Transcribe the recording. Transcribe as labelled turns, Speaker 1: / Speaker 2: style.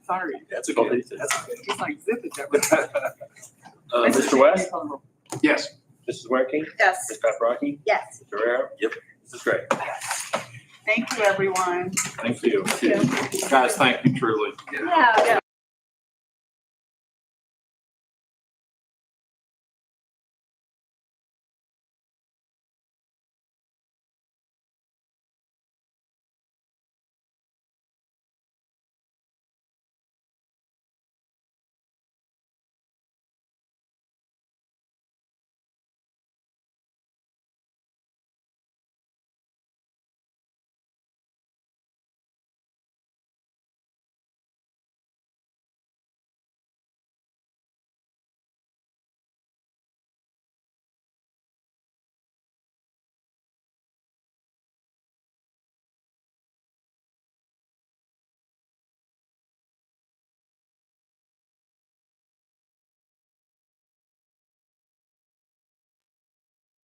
Speaker 1: sorry.
Speaker 2: That's okay. That's okay.
Speaker 1: Just like zip it. that way.
Speaker 3: Uh, Mr. West,
Speaker 4: Yes.
Speaker 3: Mrs. Werke,
Speaker 5: Yes.
Speaker 3: Ms. Paprocki,
Speaker 5: Yes.
Speaker 3: Mr. Guerrero.
Speaker 2: Yep.
Speaker 3: This is great.
Speaker 1: Thank you, everyone.
Speaker 3: Thank you.
Speaker 4: Guys, thank you truly.
Speaker 5: Yeah.
Speaker 1: Yeah.